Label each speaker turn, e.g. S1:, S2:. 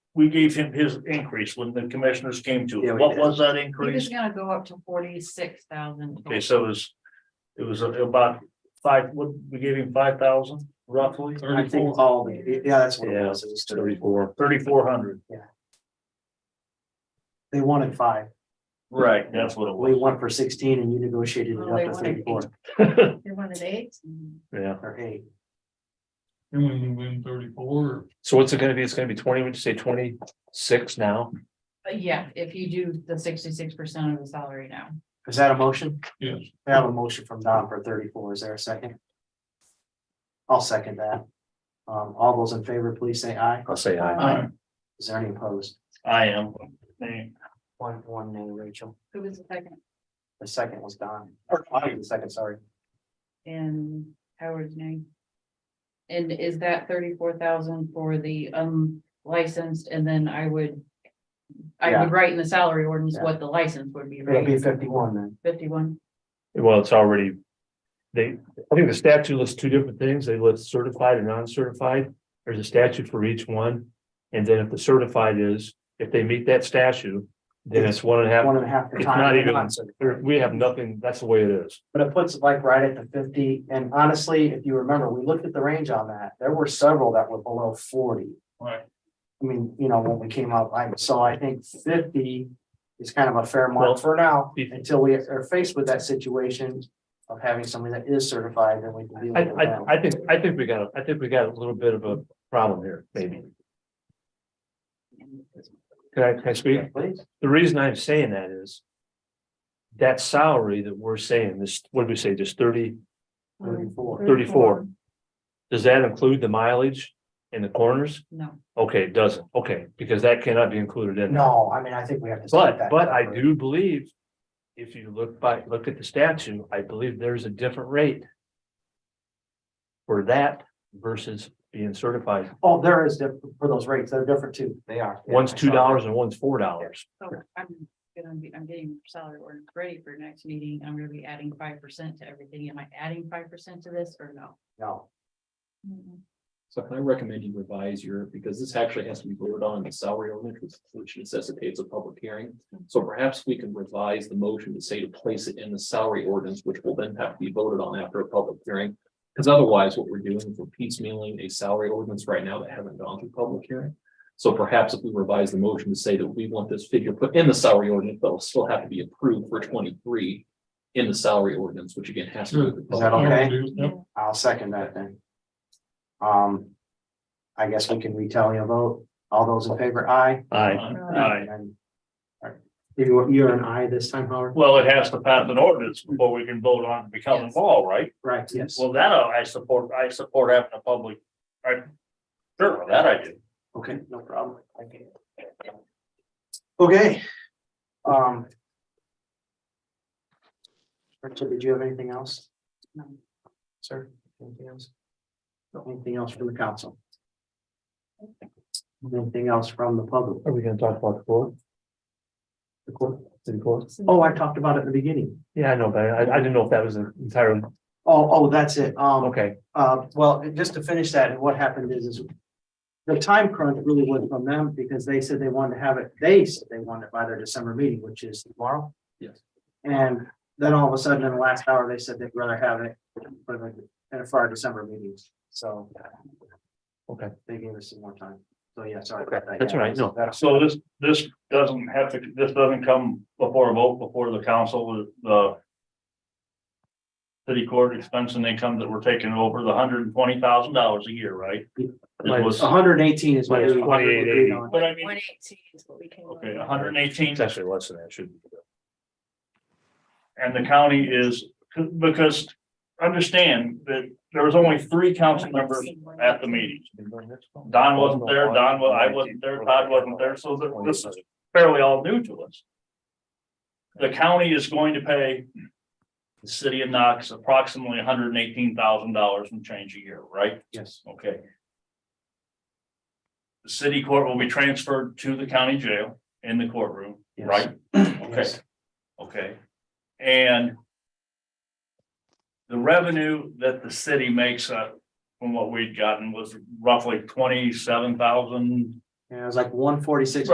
S1: we gave him his increase when the commissioners came to
S2: Yeah,
S1: it.
S2: we
S1: What
S2: did.
S1: was that
S3: He was
S1: increase?
S3: gonna go up to forty-six thousand.
S1: Okay, so it was, it was about five, what, we gave him five thousand roughly?
S2: I think all, the- yeah, that's what it
S1: Yeah,
S2: was. It was. thirty.
S1: Thirty-four. Thirty-four hundred.
S2: They wanted five,
S1: Right, that's what it
S2: we
S1: was.
S2: won for sixteen and you negotiated it
S3: Oh, they
S2: up to
S3: wanted eight.
S2: thirty-four
S3: They wanted eight.
S4: Yeah,
S2: or eight.
S5: And when you win thirty-four, or
S4: so what's it gonna be? It's gonna be twenty, would you say twenty-six now?
S3: Uh, yeah, if you do the sixty-six percent of the salary now.
S2: Is that a motion?
S5: Yes.
S2: I have a motion from Don for thirty-four. Is there a second? I'll second that. Um, all those in favor, please say aye.
S4: I'll say aye.
S1: Aye.
S2: Is there any opposed?
S1: I am. Nay.
S2: One, one nay, Rachel.
S3: Who was the second?
S2: The second was Don. Or I, the second, sorry.
S3: And Howard's name. And is that thirty-four thousand for the unlicensed, and then I would. I
S2: Yeah.
S3: would write in the salary ordinance
S2: Yeah.
S3: what the license would be,
S2: It'll be
S3: right?
S2: fifty-one then.
S3: Fifty-one,
S4: Well, it's already. They, I think the statute lists two different things. They list certified and non-certified. There's a statute for each one. And then if the certified is, if they meet that statute, then it's one and a half.
S2: One and a half. the
S4: It's
S2: time.
S4: not even-
S2: Come on, sir.
S4: There- We have nothing, that's the way it is.
S2: But it puts it like right at the fifty, and honestly, if you remember, we looked at the range on that, there were several that were below forty.
S5: Right.
S2: I mean, you know, when we came up, I, so I think fifty is kind of a fair
S4: Well,
S2: mark for now,
S4: if-
S2: until we are faced with that situation. Of having somebody that is certified, then we can deal
S4: I,
S2: with
S4: I,
S2: that.
S4: I think, I think we got, a- I think we got a little bit of a problem here, maybe. Can I, can I speak?
S2: Please,
S4: The reason I'm saying that is. That salary that we're saying, this, what did we say, just thirty,
S2: thirty-four,
S4: 34. does that include the mileage in the corners?
S3: no,
S4: Okay, it doesn't, okay, because that cannot be included in. that.
S2: no, I mean, I think we have to. set
S4: But,
S2: that
S4: but I
S2: number.
S4: do believe. If you look by, look at the statute, I believe there's a different rate. For that versus being certified.
S2: Oh, there is, diff- for those rates, they're different too, they are. Yeah,
S4: One's
S2: I
S4: two
S2: saw that.
S4: dollars and one's four dollars.
S3: so Oh, I'm gonna be, I'm getting salary ordinance ready for next meeting, I'm gonna be adding five percent to everything, am I adding five percent to this or no?
S2: No,
S6: So I recommend you revise your, because this actually has to be voted on in the salary ordinance, which- which necessitates a public hearing. So perhaps we can revise the motion to say to place it in the salary ordinance, which will then have to be voted on after a public hearing. Because otherwise, what we're doing is we're piecemealing a salary ordinance right now that haven't gone through public hearing. So perhaps if we revise the motion to say that we want this figure put in the salary ordinance, but it'll still have to be approved for twenty-three in the salary ordinance, which again has to. go through
S2: Is that
S6: public hearing.
S5: do-
S2: okay?
S5: yep.
S2: I'll second that then. Um, I guess we can retally a vote. All those in favor, aye.
S4: Aye.
S1: Aye.
S2: And- all right. You, you're an aye this time, Howard?
S1: Well, it has to pass an ordinance before we can vote on becoming law, right?
S2: Right, yes.
S1: Well, that uh, I support, I support having a public, I, sure, that I do.
S2: Okay, no problem. Okay. Okay. Um. Richard, did you have anything else?
S3: No.
S2: Sir, anything else? No, Anything else from the council? Anything else from the public?
S4: Are we gonna talk about the court?
S2: The court?
S4: City court?
S2: Oh, I talked about it at the beginning.
S4: Yeah, I know, but I, I didn't know if that was an entire,
S2: Oh, oh, that's it. Um,
S4: okay,
S2: uh, well, just to finish that, what happened is, is the time crunch really wasn't from them because they said they wanted to have it, they said they wanted it by their December meeting, which is tomorrow.
S6: Yes.
S2: And then all of a sudden, in the last hour, they said they'd rather have it for the, and for our December meetings, so.
S4: Okay.
S2: They gave us some more time. So, yeah, sorry
S4: okay,
S2: about that.
S4: that's all
S2: Yeah,
S4: right, no,
S2: that's-
S1: So this, this doesn't have to, this doesn't come before a vote, before the council, the city court expense and income that we're taking over the hundred and twenty thousand dollars a year, right? It was-
S2: hundred and eighteen is what.
S4: Minus
S2: we agreed
S4: 28.80.
S2: on.
S1: But I mean,
S3: eighteen is what we came.
S1: okay, hundred and eighteen,
S4: it's actually less than that, should be.
S1: and the county is, because understand that there was only three council members at the meeting. Don wasn't there, Don, wa- I wasn't there, Todd wasn't there, so that- this is fairly all new to us. The county is going to pay the city of Knox approximately hundred and eighteen thousand dollars and change a year, right?
S2: Yes,
S1: Okay. The city court will be transferred to the county jail in the courtroom,
S2: Yes.
S1: right? Okay,
S2: Yes.
S1: okay. And the revenue that the city makes uh, from what we'd gotten was roughly twenty-seven thousand
S2: And it was like one forty-six